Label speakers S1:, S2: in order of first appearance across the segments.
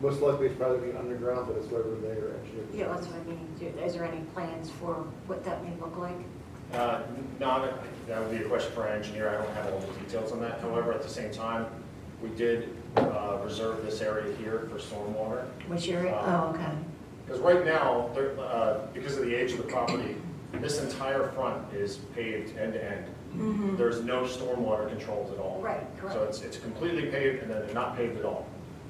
S1: most likely it's probably being underground, but it's whatever they are actually.
S2: Yeah, that's what I mean. Do- Is there any plans for what that may look like?
S3: Uh, Not, that would be a question for our engineer, I don't have all the details on that. However, at the same time, we did uh, reserve this area here for stormwater.
S2: Which area? Oh, okay.
S3: Because right now, there- uh, because of the age of the property, this entire front is paved end to end.
S2: Mhm.
S3: There's no stormwater controls at all.
S2: Right,
S3: So
S2: correct.
S3: it's, it's completely paved and then not paved at all.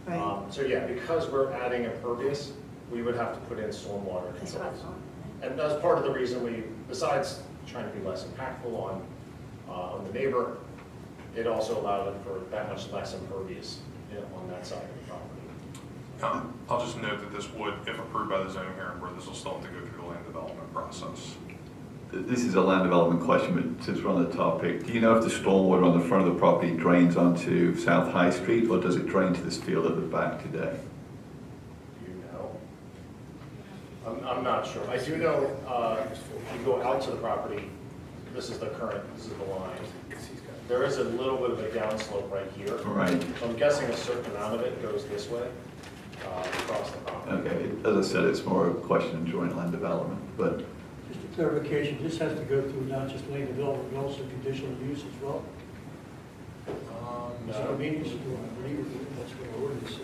S2: Right.
S3: Um, So yeah, because we're adding impervious, we would have to put in stormwater
S2: That's what I
S3: controls.
S2: thought.
S3: And that's part of the reason we, besides trying to be less impactful on, uh, on the neighbor, it also allowed it for that much less impervious you know, on that side of the property.
S4: Um, I'll just note that this would, if approved by the zoning hearing board, this will still have to go through the land development process.
S5: This is a land development question, but since we're on the topic, do you know if the stormwater on the front of the property drains onto South High Street, or does it drain to this field at the back today?
S3: Do you know? I'm, I'm not sure. I do know, uh, if you go out to the property, this is the current, this is the line. There is a little bit of a downslope right here.
S5: Right.
S3: So I'm guessing a certain amount of it goes this way, uh, across the property.
S5: Okay, it- as I said, it's more a question of joint land development, but
S6: Just a clarification, this has to go through not just land development, but also conditional use as well? It's a
S3: No.
S6: convenience store, I believe, that's what our ordinance says.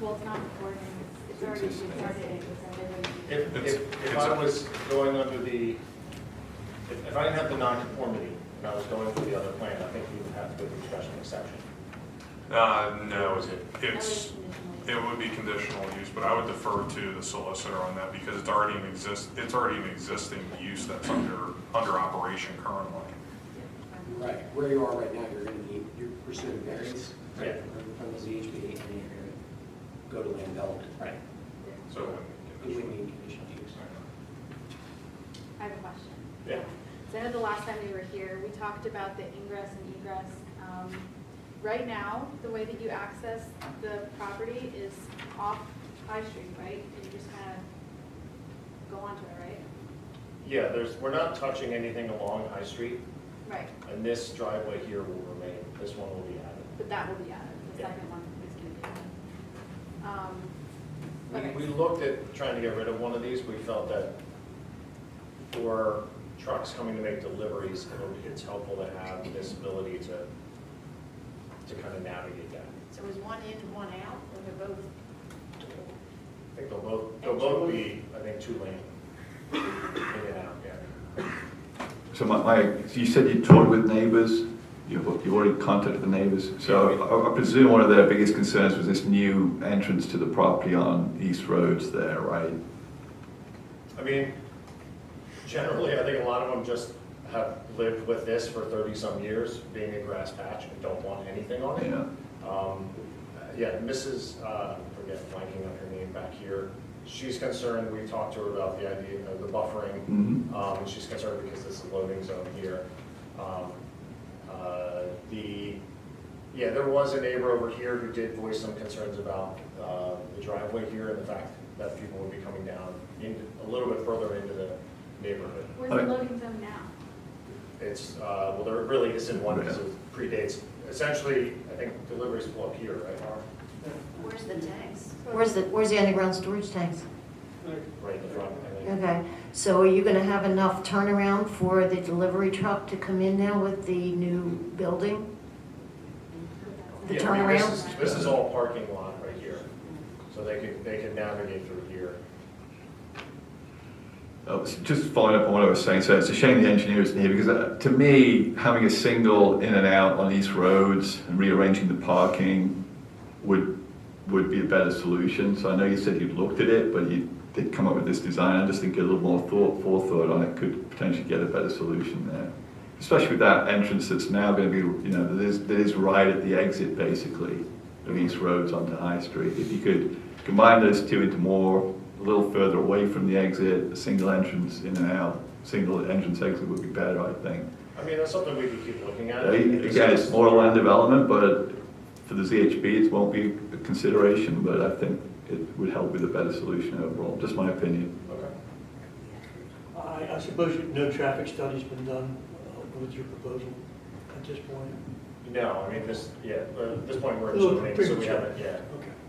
S7: Well, it's not ordinance, it's already it's already presented.
S3: If,
S4: It's-
S3: if, if
S4: it's
S3: I
S4: a-
S3: was going under the, if, if I didn't have the nonconformity and I was going for the other plan, I think we would have to go through special exception.
S4: Uh,
S3: Or
S4: no,
S3: is it-
S4: it's, it would be conditional use, but I would defer to the solicitor on that because it's already an exist, it's already an existing use that's under, under operation currently.
S8: Right, where you are right now, you're gonna need, you're pursuing variance.
S3: Yeah.
S8: From the ZHB, and you're gonna go to land development.
S3: Right.
S4: So it wouldn't be
S8: You would
S4: conditional.
S8: need conditional use.
S7: I have a question.
S3: Yeah.
S7: So I know the last time we were here, we talked about the ingress and egress. Um, Right now, the way that you access the property is off High Street, right? And you just kind of go onto it, right?
S3: Yeah, there's, we're not touching anything along High Street,
S7: Right,
S3: and this driveway here will remain, this one will be added.
S7: but that will be added, the
S3: Yeah.
S7: second one is going to be added. Um, okay.
S3: We, we looked at trying to get rid of one of these, we felt that for trucks coming to make deliveries, it would- it's helpful to have this ability to, to kind of navigate that.
S9: So is one in and one out, or they're both?
S3: I think they'll both, they'll both be, I think, two lane. In and out, yeah.
S5: So my, my, so you said you toured with neighbors, you've, you already contacted the neighbors. So I- I presume one of their biggest concerns was this new entrance to the property on East Roads there, right?
S3: I mean, generally, I think a lot of them just have lived with this for thirty-some years, being a grass patch, and don't want anything on it.
S5: Yeah.
S3: Um, Yeah, Mrs., uh, I forget, blanking on her name back here, she's concerned, we talked to her about the idea of the buffering.
S5: Mhm.
S3: Um, and she's concerned because this is a loading zone here. Um, uh, The, yeah, there was a neighbor over here who did voice some concerns about uh, the driveway here and the fact that people would be coming down into, a little bit further into the neighborhood.
S7: Where's the loading zone now?
S3: It's, uh, well, there really isn't one because it predates, essentially, I think deliveries pull up here, right, Mark?
S9: Where's the tanks?
S2: Where's the, where's the underground storage tanks?
S3: Right in the front, I think.
S2: Okay, so are you gonna have enough turnaround for the delivery truck to come in now with the new building? The
S3: Yeah, I mean, this
S2: turnaround?
S3: is- This is all parking lot right here, so they could, they could navigate through here.
S5: Uh, s- Just following up on what I was saying, so it's a shame the engineer isn't here because uh, to me, having a single in and out on East Roads and rearranging the parking would, would be a better solution. So I know you said you looked at it, but you did come up with this design. I just think a little more thought, forethought on it could potentially get a better solution there. Especially with that entrance that's now going to be, you know, that is, that is right at the exit basically of East Roads onto High Street. If you could combine those two into more, a little further away from the exit, a single entrance in and out, single entrance exit would be better, I think.
S3: I mean, that's something we could keep looking at.
S5: Again, it's more land development, but for the ZHB, it won't be a consideration, but I think it would help with a better solution overall, just my opinion.
S3: Okay.
S6: I, I suppose you- no traffic study's been done uh, with your proposal at this point?
S3: No, I mean, this, yeah, but at this point, we're in
S6: Little
S3: zoning, so we
S6: premature.
S3: haven't, yeah.
S6: Okay.